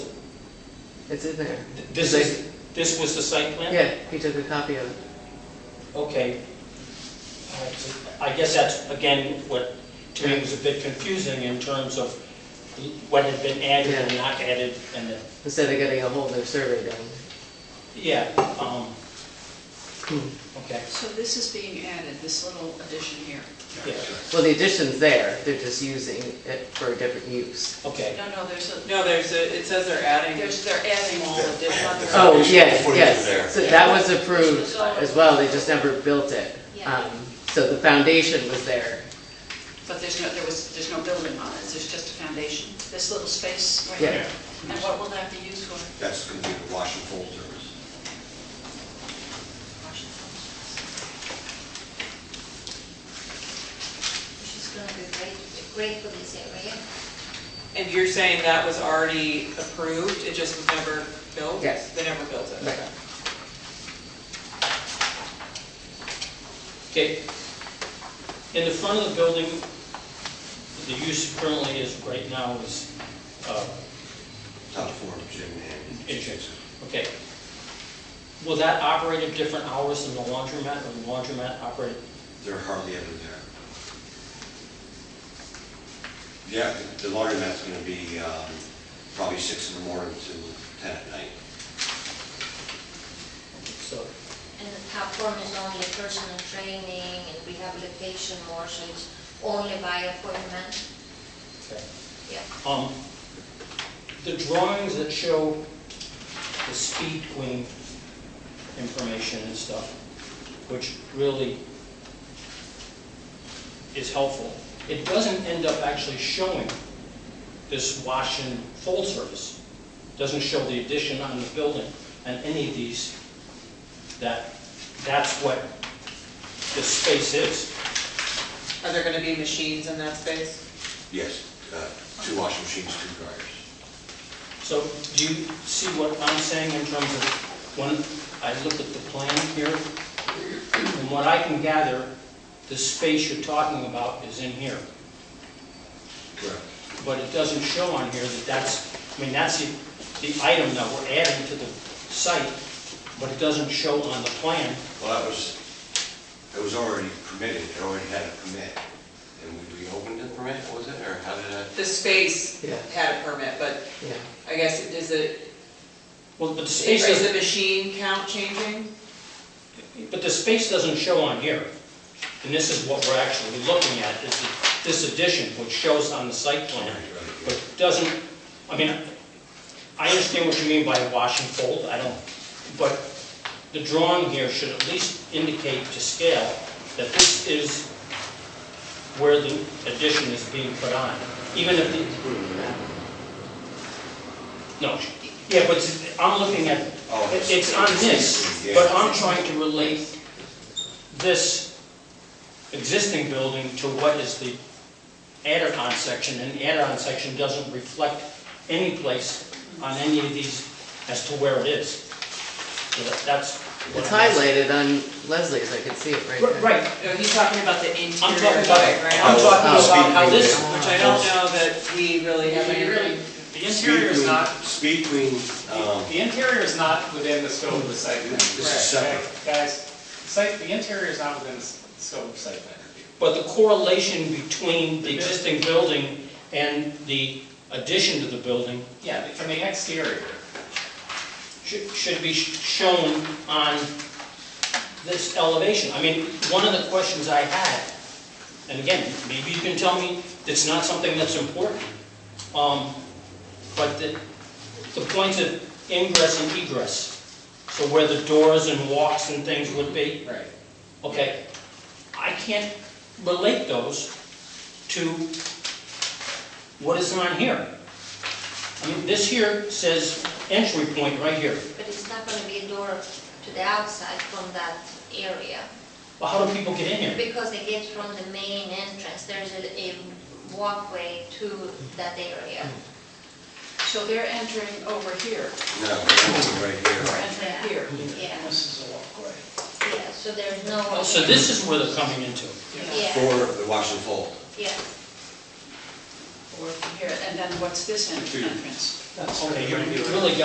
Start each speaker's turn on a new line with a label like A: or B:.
A: It's in there.
B: This is, this was the site plan?
A: Yeah, he took a copy of it.
B: Okay. All right, so I guess that's, again, what to me was a bit confusing in terms of what had been added and not added, and then,
A: Instead of getting a whole new survey done.
B: yeah, um, okay,
C: So this is being added, this little addition here.
B: yeah,
A: Well, the addition's there, they're just using it for a different use.
B: okay.
C: No, no, there's a,
D: No, there's a, it says they're adding,
C: there's, they're adding all the different.
A: Oh,
E: Additional
A: yes,
E: footage there.
A: yes. So that was approved as well, they just never built it.
C: Yeah.
A: Um, So the foundation was there.
C: But there's no, there was, there's no building on it, there's just a foundation, this little space right
A: Yeah.
C: here. And what will that be used for?
E: That's going to be the wash and fold service.
F: which is going to be great, great for this area.
D: and you're saying that was already approved, it just was never built?
A: Yes.
D: They never built it,
A: Right.
D: okay.
B: Okay. In the front of the building, the use currently is, right now is, uh,
E: Top floor, gym and.
B: Entrance. okay. Will that operate at different hours than the laundromat, or the laundromat operate?
E: They're hardly ever there. Yeah, the the laundromat's going to be um, probably six in the morning to ten at night.
B: So,
F: And the top one is only personal training and rehabilitation more, so it's only by appointment.
B: okay.
F: Yeah,
B: Um, The drawings that show the speed queen information and stuff, which really is helpful, it doesn't end up actually showing this wash and fold service. Doesn't show the addition on the building on any of these, that, that's what this space is.
D: Are there gonna be machines in that space?
E: Yes, uh, two washing machines, two dryers.
B: So do you see what I'm saying in terms of, when I look at the plan here, from what I can gather, the space you're talking about is in here,
E: Correct.
B: but it doesn't show on here that that's, I mean, that's the, the item that we're adding to the site, but it doesn't show on the plan.
E: Well, that was, it was already permitted, it already had a permit. And we we opened the permit, was it, or how did that?
D: The space
A: Yeah.
D: had a permit, but
A: Yeah.
D: I guess it is it,
B: Well, but the space
D: is the
B: doesn't,
D: machine count changing?
B: but the space doesn't show on here. And this is what we're actually looking at, is the- this addition, which shows on the site plan. but doesn't, I mean, I understand what you mean by wash and fold, I don't, but the drawing here should at least indicate to scale that this is where the addition is being put on, even if the, no, yeah, but I'm looking at,
E: Oh,
B: it's on this,
E: Yeah.
B: but I'm trying to relate this existing building to what is the added-on section, and the added-on section doesn't reflect any place on any of these as to where it is. So that- that's. what
A: It's
B: I'm asking.
A: highlighted on Leslie's, I can see it right
B: Right,
A: there.
B: Right,
D: No, he's talking about the
B: I'm
D: interior
B: talking about, I'm
D: playground,
B: talking about how this,
D: which I don't know that we really have any.
G: The interior is not,
E: Speed Queen, um,
G: the interior is not within the scope of the site plan.
E: This is separate.
G: Guys, the site, the interior is not within the s- scope of site plan review.
B: but the correlation between the existing building and the addition to the building
G: Yeah, from the exterior.
B: should, should be sh- shown on this elevation. I mean, one of the questions I had, and again, maybe you can tell me it's not something that's important, um, but the, the points of ingress and egress, so where the doors and walks and things would be,
G: Right.
B: okay, I can't relate those to what is on here. I mean, this here says entry point right here.
F: but it's not going to be a door to the outside from that area,
B: Well, how do people get in here?
F: because they get from the main entrance, there's a a walkway to that area.
C: So they're entering over here,
E: no, right here.
C: they're entering here.
F: Yeah. This is a walkway. Yeah, so there's no.
B: Oh, So this is where they're coming into.
F: Yeah,
E: For the wash and fold.
F: yeah.
C: Or from here, and then what's this en- entrance?
B: Okay, you you really